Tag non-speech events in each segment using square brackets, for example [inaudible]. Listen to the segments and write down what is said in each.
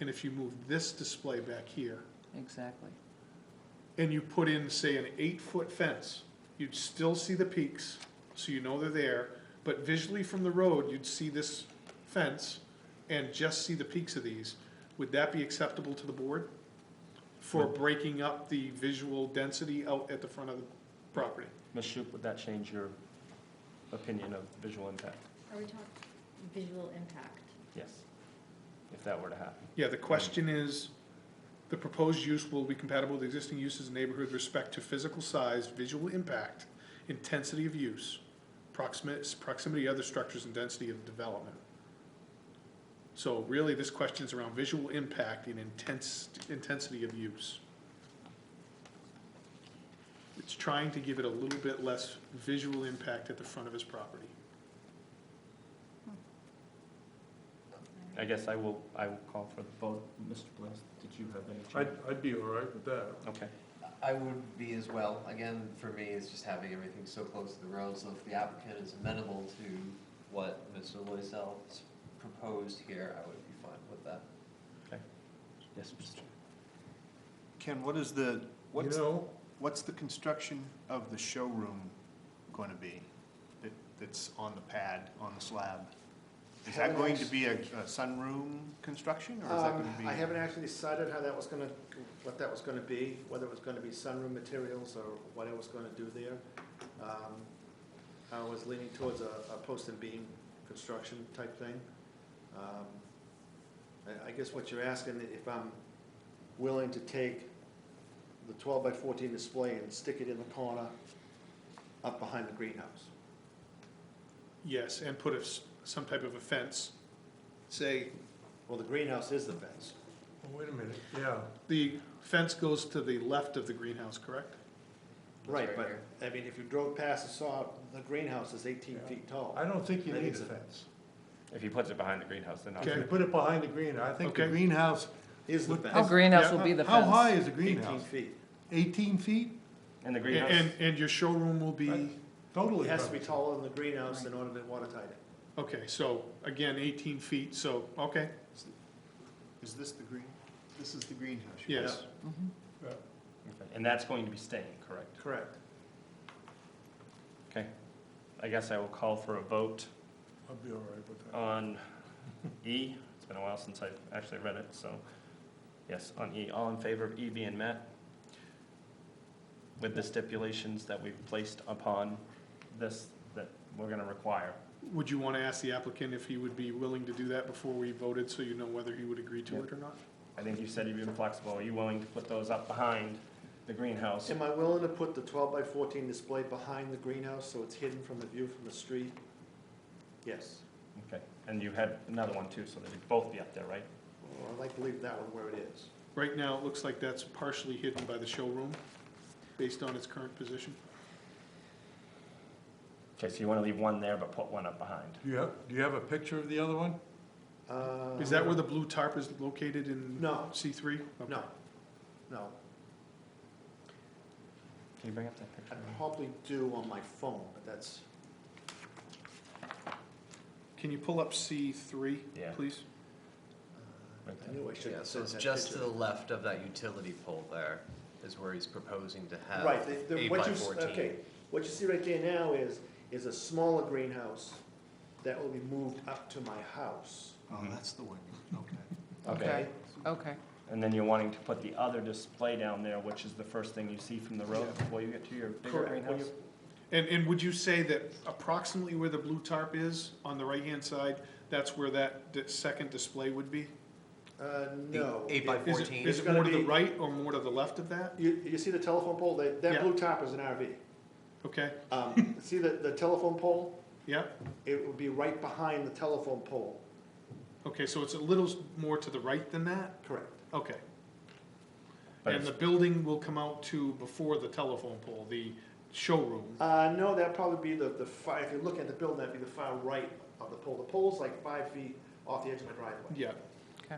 And if you move this display back here, exactly. and you put in, say, an eight-foot fence, you'd still see the peaks, so you know they're there, but visually from the road, you'd see this fence and just see the peaks of these. Would that be acceptable to the board for breaking up the visual density out at the front of the property? Ms. Shoup, would that change your opinion of visual impact? Are we talking visual impact? Yes, if that were to happen. Yeah, the question is, the proposed use will be compatible with existing uses in the neighborhood with respect to physical size, visual impact, intensity of use, proximate, proximity to other structures and density of development. So really, this question's around visual impact and intense, intensity of use. It's trying to give it a little bit less visual impact at the front of his property. I guess I will, I will call for the vote. Mr. Bliss, did you have any I'd, change? I'd be all right with that. Okay, I would be as well. Again, for me, it's just having everything so close to the road, so if the applicant is amenable to what Mr. Loisel's proposed here, I would be fine with that. yes, Mr. Chair. Ken, what is the, You what's, know, what's the construction of the showroom going to be that, that's on the pad, on the slab? Is that going to be a a sunroom construction, or is that going Um, to be? I haven't actually decided how that was gonna, what that was gonna be, whether it was gonna be sunroom materials or what I was gonna do there. Um, I was leaning towards a, a post and beam construction type thing. Um, I, I guess what you're asking, if I'm willing to take the twelve by fourteen display and stick it in the corner up behind the greenhouse. Yes, and put a s some type of a fence, say, Well, the greenhouse is the fence. oh, wait a minute, yeah. The fence goes to the left of the greenhouse, correct? It's Right, right but, here. I mean, if you drove past and saw, the greenhouse is eighteen Yeah. feet tall. I don't think you That need a is a- fence. If he puts it behind the greenhouse, then I'll. If you Okay. put it behind the greenhouse, I think the Okay. greenhouse. Is the would- fence. How greenhouse will be the How high fence? is the Eighteen greenhouse? feet. Eighteen feet? And the And, greenhouse, and- and your showroom will be, Right. Totally. It has to be covered. taller than the greenhouse in order to watertight it. okay, so, again, eighteen feet, so, okay, Is this the green, this is the greenhouse? you're yes. Mhm. Okay, and that's going to be staying, correct? Correct. Okay, I guess I will call for a vote I'd be all right with that. on E. It's been a while since I've actually read it, so, yes, on E. All in favor of E being met? With the stipulations that we've placed upon this, that we're gonna require. Would you wanna ask the applicant if he would be willing to do that before we voted, so you know whether he would agree to it or not? I think you said you've been flexible. Are you willing to put those up behind the greenhouse? Am I willing to put the twelve by fourteen display behind the greenhouse so it's hidden from the view from the street? Yes. Okay, and you had another one too, so they'd both be up there, right? Well, I'd like to leave that one where it is. Right now, it looks like that's partially hidden by the showroom, based on its current position. Okay, so you want to leave one there but put one up behind. Do you have, do you have a picture of the other one? Uh, Is that where the blue tarp is located in? No. C three? No, no. Can you bring up that picture? I'd probably do on my phone, but that's, Can you pull up C three, Yeah. please? uh, Right I there. knew I should Yeah, have so sent it's that just to picture. the left of that utility pole there is where he's proposing to have Right, the, the, uh, eight what by you, s- fourteen. okay, what you see right there now is, is a smaller greenhouse that will be moved up to my house, Oh, that's the one, okay. Okay, okay. And then you're wanting to put the other display down there, which is the first thing you see from the road before you get to your bigger Correct. When greenhouse? you- And, and would you say that approximately where the blue tarp is, on the right-hand side, that's where that di- second display would be? Uh, no. Eight by Is It- it, fourteen. is It's it gonna more to the be- right or more to the left of that? You, you see the telephone pole, that, Yeah. that blue top is an RV. Okay, [laughs] Um, see the, the telephone pole, yeah, it would be right behind the telephone pole. okay, so it's a little s- more to the right than that? Correct. Okay. But And it's- the building will come out to before the telephone pole, the showroom? Uh, no, that'd probably be the, the far, if you're looking at the building, that'd be the far right of the pole. The pole's like five feet off the edge of my driveway. Yeah. Okay.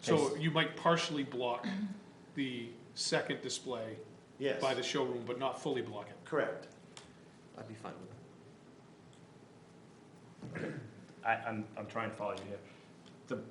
So Yes. you might partially block the second display Yes, by the showroom, but not fully block it? correct. I'd be fine with that. I, I'm, I'm trying to follow you here. The